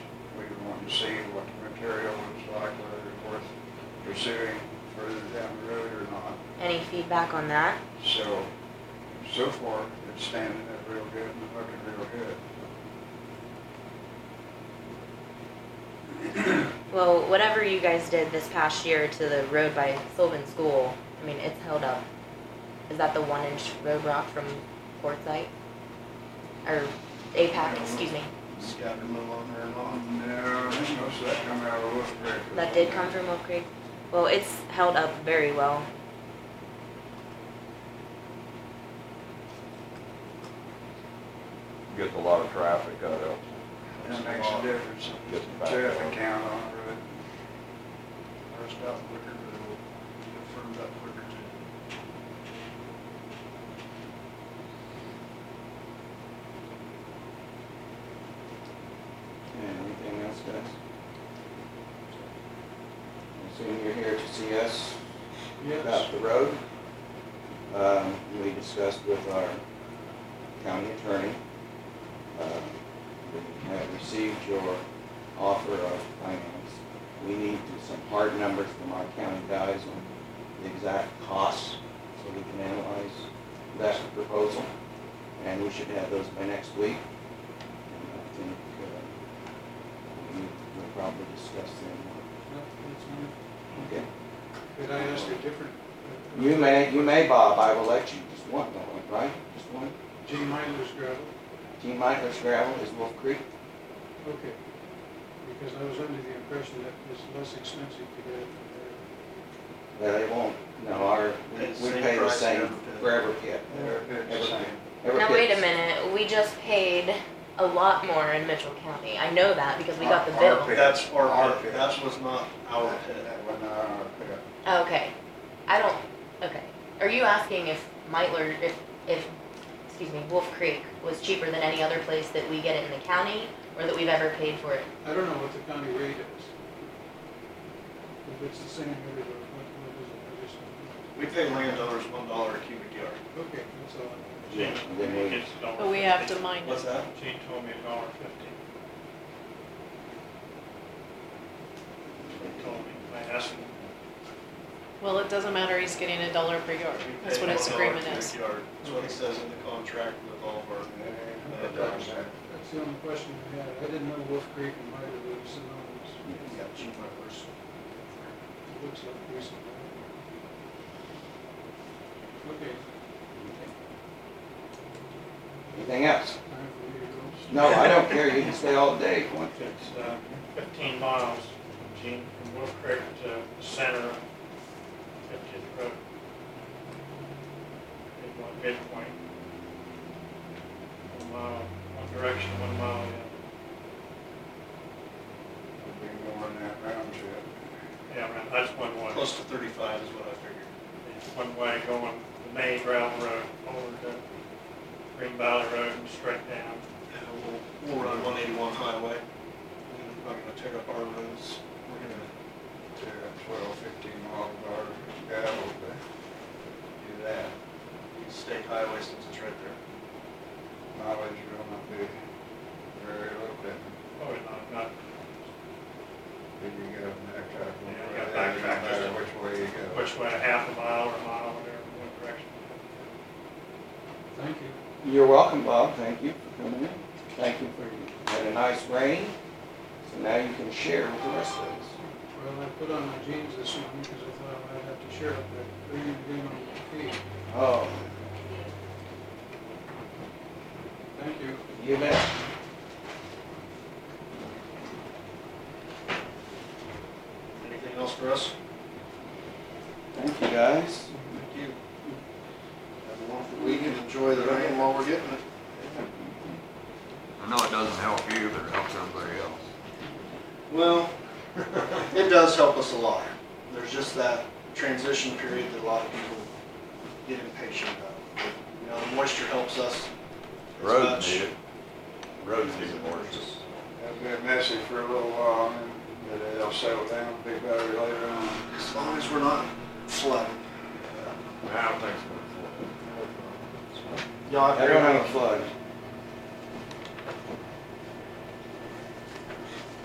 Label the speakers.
Speaker 1: carry on its life, whether it's worth pursuing further down the road or not.
Speaker 2: Any feedback on that?
Speaker 1: So, so far, it's standing up real good and looking real good.
Speaker 2: Well, whatever you guys did this past year to the road by Sylvan School, I mean, it's held up. Is that the one inch road rock from Quartzite? Or APAC, excuse me.
Speaker 1: Scattered a little on there and on. No, I think most of that come out of Wolf Creek.
Speaker 2: That did come from Wolf Creek. Well, it's held up very well.
Speaker 3: Gets a lot of traffic out of,
Speaker 1: That makes a difference.
Speaker 3: Gets back
Speaker 1: Traffic
Speaker 3: on.
Speaker 1: count on the road.
Speaker 4: First out quicker, but it'll get firmed up quicker too.
Speaker 5: And anything else, guys? I assume you're here to see us about the road. Um, we discussed with our county attorney. Um, We have received your offer of finance. We need to- some hard numbers from our county guys on the exact costs, so we can analyze that proposal. And we should have those by next week. And I think, uh, we need- we'll probably discuss them. Okay.
Speaker 4: Could I ask a different?
Speaker 5: You may, you may, Bob, I will let you, just one, don't we, right? Just one.
Speaker 4: G minus gravel,
Speaker 5: Team Midas Gravel is Wolf Creek.
Speaker 4: okay. Because I was under the impression that it's less expensive to get it from
Speaker 5: No, They won't, no, our, we
Speaker 4: It's
Speaker 5: we
Speaker 4: same
Speaker 5: pay the
Speaker 4: price
Speaker 5: same
Speaker 4: every pit.
Speaker 5: for every pit.
Speaker 1: They're good,
Speaker 5: Every
Speaker 1: same.
Speaker 5: pit. Every
Speaker 2: Now, wait a
Speaker 5: pit's-
Speaker 2: minute, we just paid a lot more in Mitchell County. I know that because we got the bill.
Speaker 1: pit.
Speaker 6: That's our
Speaker 1: Our
Speaker 6: pit,
Speaker 1: pit.
Speaker 6: that's what's not our
Speaker 1: That-
Speaker 6: pit.
Speaker 1: That one, uh, yeah.
Speaker 2: Okay, I don't, okay, are you asking if Mitler, if, if, excuse me, Wolf Creek was cheaper than any other place that we get it in the county, or that we've ever paid for it?
Speaker 4: there. I don't know what the county rate is. If it's the same everywhere, what, what is it, I just,
Speaker 6: We pay landowners one dollar a cubic yard.
Speaker 4: okay, that's all. I
Speaker 5: Yeah, and then we-
Speaker 7: But we have to mine
Speaker 6: What's
Speaker 7: it.
Speaker 6: that?
Speaker 4: Gene told me a dollar fifty. He told me, I asked him.
Speaker 7: Well, it doesn't matter, he's getting a dollar per yard.
Speaker 6: We
Speaker 7: That's
Speaker 6: pay
Speaker 7: what his
Speaker 6: $1 a
Speaker 7: agreement is.
Speaker 6: cubic yard. That's what it says in the contract with all of our.
Speaker 1: Yeah, that does that.
Speaker 4: That's the only question I had. I didn't know Wolf Creek and Mitre were synonymous.
Speaker 6: We got G minus.
Speaker 4: It looks like recently. Okay,
Speaker 5: Anything else?
Speaker 4: time for you to
Speaker 5: No, I don't care, you can stay all day if you want to.
Speaker 8: It's uh, 15 miles, Gene, from Wolf Creek to the center of 50th Road. Midpoint, midpoint. One mile, one direction, one mile the
Speaker 1: We've been going that round trip.
Speaker 8: other. Yeah, right, that's one way.
Speaker 6: Close to thirty-five is what I figured.
Speaker 8: It's one way going the main gravel road over to Green Valley Road and straight down.
Speaker 6: And we'll, we'll run one eighty-one highway. We're gonna- I'm gonna tear up our roads. We're gonna,
Speaker 1: to twelve, fifteen mile an hour gravel to do that.
Speaker 6: use state highway since it's right there.
Speaker 1: Mileage will not be very little bit,
Speaker 8: Probably not, not,
Speaker 1: if you get up in that traffic.
Speaker 8: Yeah,
Speaker 1: light, it doesn't
Speaker 8: you gotta backtrack just
Speaker 1: matter
Speaker 8: a-
Speaker 1: Which way you go.
Speaker 8: which way, half a mile or a mile, whatever, one direction.
Speaker 4: Thank you.
Speaker 5: You're welcome, Bob, thank you for coming in. Thank you for, you had a nice rain, so now you can share with the rest of us.
Speaker 4: Well, I put on my jeans this morning because I thought I'd have to share it, but bringing it in on my feet.
Speaker 5: Oh,
Speaker 4: Thank you.
Speaker 5: you bet.
Speaker 6: Anything else for us?
Speaker 5: Thank you, guys.
Speaker 6: Thank you. Have a wonderful week and enjoy the rain while we're getting it.
Speaker 3: I know it doesn't help you, but it helps everybody else.
Speaker 6: Well, it does help us a lot. There's just that transition period that a lot of people get impatient about. You know, the moisture helps us. as
Speaker 3: Roads
Speaker 6: much
Speaker 3: need it. Roads
Speaker 6: as
Speaker 3: need it
Speaker 6: it
Speaker 3: more.
Speaker 6: just-
Speaker 1: It'll be a messy for a little while, and then it'll settle down, be better later on.
Speaker 6: As long as we're not flooding.
Speaker 3: I don't think so.
Speaker 6: Y'all
Speaker 5: I
Speaker 6: have a
Speaker 5: don't
Speaker 6: great week.
Speaker 5: have a flood.